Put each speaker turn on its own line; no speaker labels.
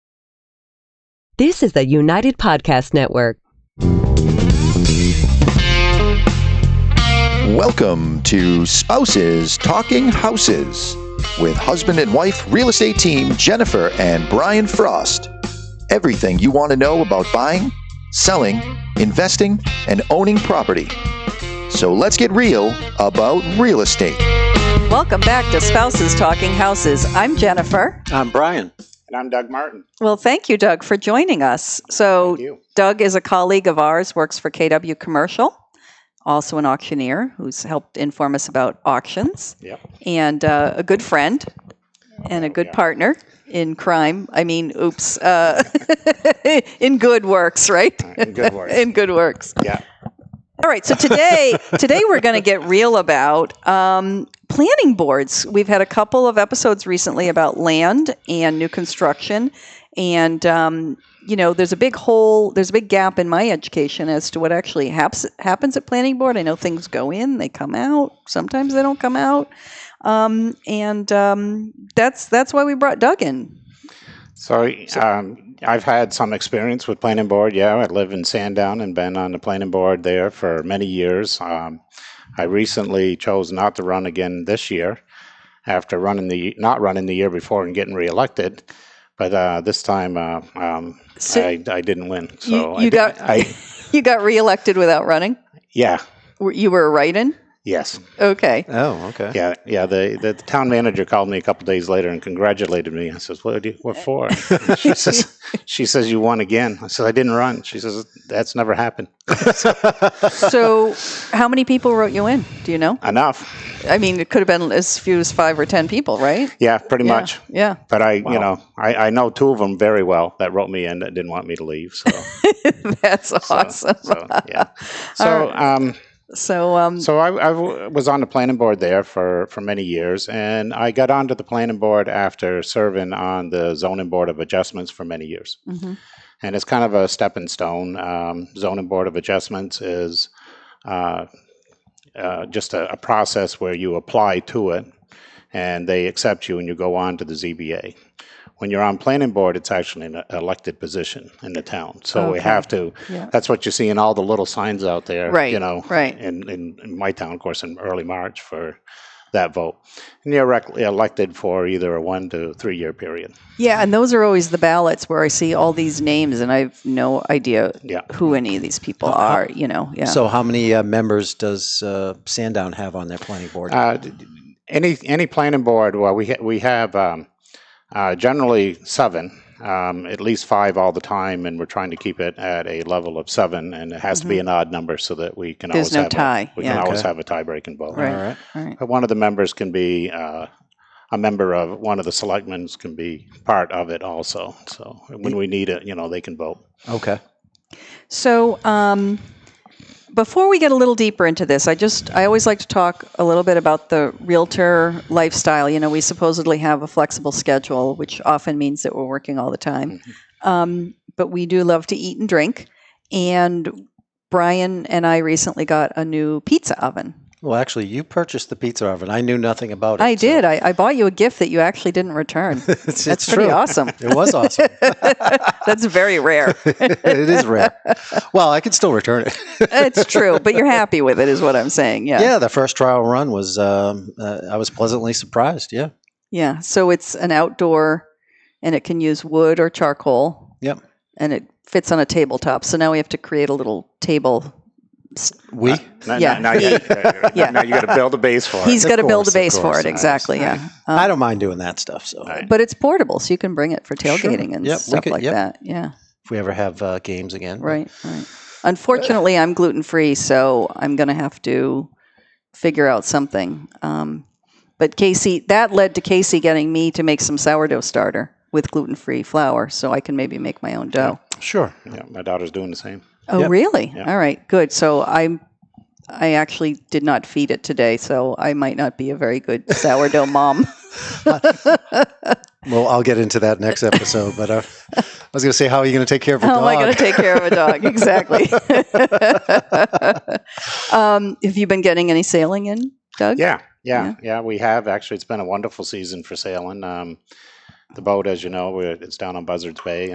This is the United Podcast Network.
Welcome to Spouses Talking Houses with husband and wife real estate team Jennifer and Brian Frost. Everything you want to know about buying, selling, investing, and owning property. So let's get real about real estate.
Welcome back to Spouses Talking Houses. I'm Jennifer.
I'm Brian.
And I'm Doug Martin.
Well, thank you, Doug, for joining us. So,
Thank you.
Doug is a colleague of ours, works for KW Commercial, also an auctioneer who's helped inform us about auctions,
Yep.
and uh, a good friend and a good
yeah.
partner in crime. I mean, oops, uh, in good works, right?
And good work.
In good works.
yeah.
All right. So today, today we're going to get real about um, planning boards. We've had a couple of episodes recently about land and new construction, and um, you know, there's a big hole, there's a big gap in my education as to what actually haps, happens at planning board. I know things go in, they come out. Sometimes they don't come out, um, and um, that's that's why we brought Doug in.
So um, I've had some experience with planning board. Yeah, I live in Sandown and been on the planning board there for many years. Um, I recently chose not to run again this year after running the not running the year before and getting reelected. But uh, this time uh, um,
So
I, I didn't win. So
you
I
got-
did, I,
you got reelected without running.
yeah.
Were- You were a write-in.
Yes.
Okay.
Oh, okay.
Yeah. Yeah. The, the, town manager called me a couple days later and congratulated me. I says, "What? do you- What for?" she says, "She says you won again." I said, "I didn't run." She says, "That's never happened."
So, how many people wrote you in? Do you know?
Enough.
I mean, it could have been as few as five or ten people, right?
Yeah, pretty
Yeah.
much.
Yeah.
But I, you know, I, I know two of them very well that wrote me in that didn't want me to leave. So,
That's awesome. So,
so yeah. So, um,
um,
So I, I w- was on the planning board there for, for many years, and I got onto the planning board after serving on the zoning board of adjustments for many years.
Mhm.
And it's kind of a stepping stone. Um, zoning board of adjustments is uh, uh, just a, a process where you apply to it, and they accept you, and you go on to the ZBA. When you're on planning board, it's actually an elected position in the town, so we
Okay.
have to.
Yeah.
That's what you see in all the little signs out there
Right,
you know,
right.
in, in, in my town, of course, in early March for that vote. And you're rec- elected for either a one to three year period.
yeah, and those are always the ballots where I see all these names, and I have no idea
Yeah.
who any of these people are. You know? Yeah.
So, how many uh, members does uh, Sandown have on their planning board?
Uh, d- d- any any planning board? Well, we ha- we have um, uh, generally seven, um, at least five all the time, and we're trying to keep it at a level of seven, and it has to be an odd number so that we can
Mm-hmm. There's
always
no
have
tie,
A, we
yeah.
can always
Okay.
have a tie breaking vote.
right.
All right.
all right.
But one of the members can be uh, a member of one of the selectmen's can be part of it also. So when we need it, you know, they can vote.
Okay.
So, um, before we get a little deeper into this, I just I always like to talk a little bit about the realtor lifestyle. You know, we supposedly have a flexible schedule, which often means that we're working all the time,
Mm-hmm.
um, but we do love to eat and drink. And Brian and I recently got a new pizza oven.
Well, actually, you purchased the pizza oven. I knew nothing about it.
I
so-
did. I, I bought you a gift that you actually didn't return.
it's, it's
That's pretty
true.
awesome.
It was awesome.
That's very rare.
it is rare. Well, I could still return it.
it's true, but you're happy with it, is what I'm saying.
Yeah, the first trial run was. Um, uh, I was pleasantly surprised. Yeah.
Yeah. So it's an outdoor and it can use wood or charcoal.
Yep.
And it fits on a tabletop. So now we have to create a little table. Uh,
We.
Now,
Yeah.
now, now you,
Yeah.
now you got to build a base for
He's
of
got to build a
course, of
base for
course.
it. Exactly. Yeah.
I
Um,
don't mind doing that stuff. So
Right.
but it's portable, so you can bring it for
Sure.
tailgating and
Yep, we
stuff
could-
like
yep.
that. Yeah.
if we ever have uh, games again,
Right. Right. Unfortunately, I'm gluten free, so I'm going to have to figure out something. Um, but Casey, that led to Casey getting me to make some sourdough starter with gluten free flour, so I can maybe make my own dough.
Sure.
it. Yeah, my daughter's doing the same.
Oh,
Yep.
really?
Yep.
All right, good. So I'm. I actually did not feed it today, so I might not be a very good sourdough mom.
Well, I'll get into that next episode. But uh, I was going to say, how are you going to take care of a
How
dog?
am I going to take care of a dog? Exactly. um, have you been getting any sailing in, Doug?
Yeah, yeah,
Yeah.
yeah, We have actually. It's been a wonderful season for sailing. Um, the boat, as you know, we're, it's down on Buzzards Bay,